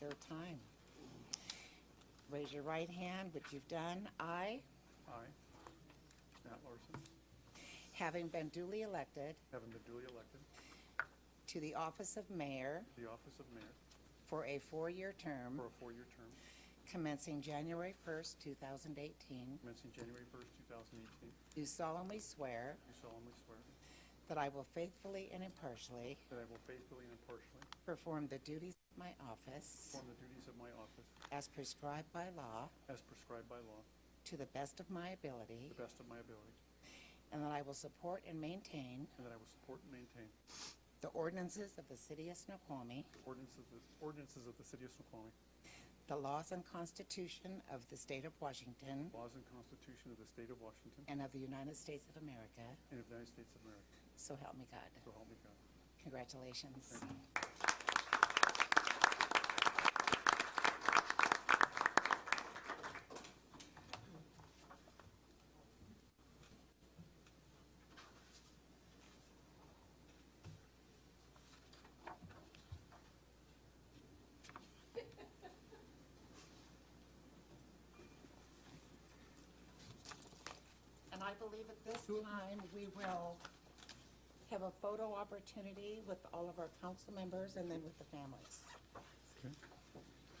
their time. Raise your right hand, which you've done. I, I, Matt Larson, having been duly elected having been duly elected to the office of mayor to the office of mayor for a four-year term for a four-year term commencing January 1st, 2018, commencing January 1st, 2018, do do solemnly swear solemnly swear that I will faithfully and impartially that I will faithfully and impartially perform the duties of my office perform the duties of my office as prescribed by law as prescribed by law to to the best of my ability, the best of my ability, and that I will support and maintain and that I will support and maintain the ordinances of the city of Snoqualmie, ordinances of ordinances of the city of Snoqualmie, the laws and constitution of the state of Washington laws and constitution of the state of Washington and of the United States of America, and of the United States of America, so help me God. so help me God. Congratulations. And I believe at this time, we will have a photo opportunity with all of our council members and then with the families. Okay.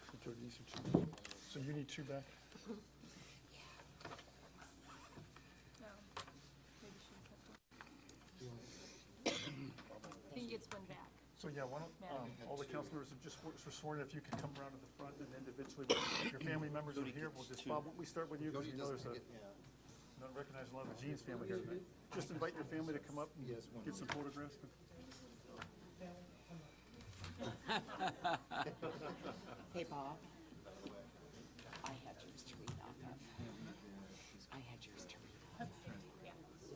So Jody, these are two. So you need two back? I think it's one back. So, yeah, why don't, um, all the council members have just were were sworn, in. if you could come around to the front and individually, when your family members are here, we'll just, Bob, why don't we start with you, because we know there's a, not recognizing a lot of Gene's family here tonight. Just invite your family to come up and get some photographs. Hey, Bob. I had yours to read off of. I had yours to read off of.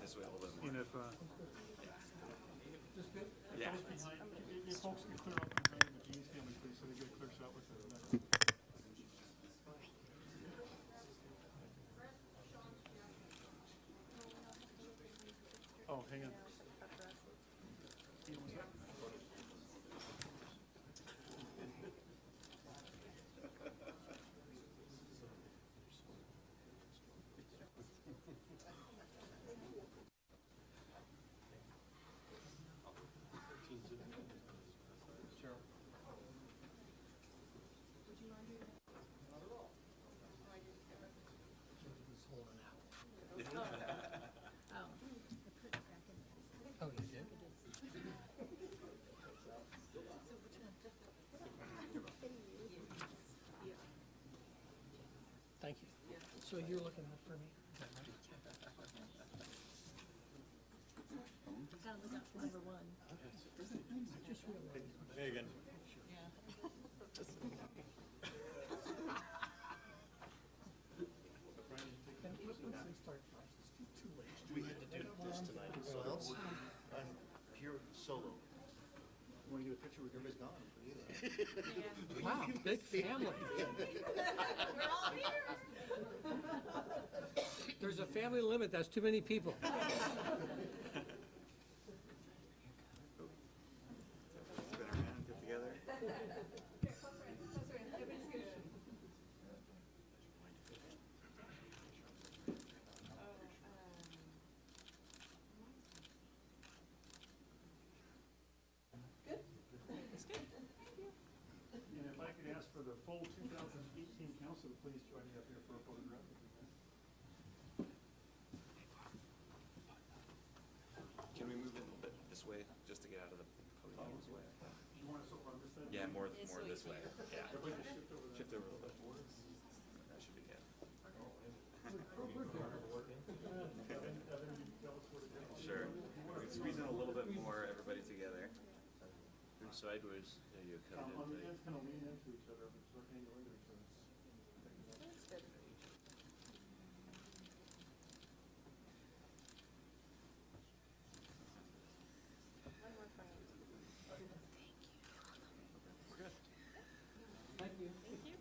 This way a little bit more. And if, uh, Yeah. if folks can clear up the name of the Gene's family, please, so they get a clear shot with the. Oh, hang on. Thank you. So you're looking for me? Gotta look out for number one. We had to do this tonight, so I'm here solo. Want to get a picture with your Miss Dawn? Wow, big family. There's a family limit, that's too many people. Spin around, get together. And if I could ask for the full 2018 council, to please join me up here for a photograph. Can we move it a little bit this way, just to get out of the podium's way? Do you want us over on this side? Yeah, more, more this way, yeah. Everybody just shift over there. Shift over a little bit. That should be good. Sure. We can squeeze in a little bit more, everybody together. Um, On the end, kind of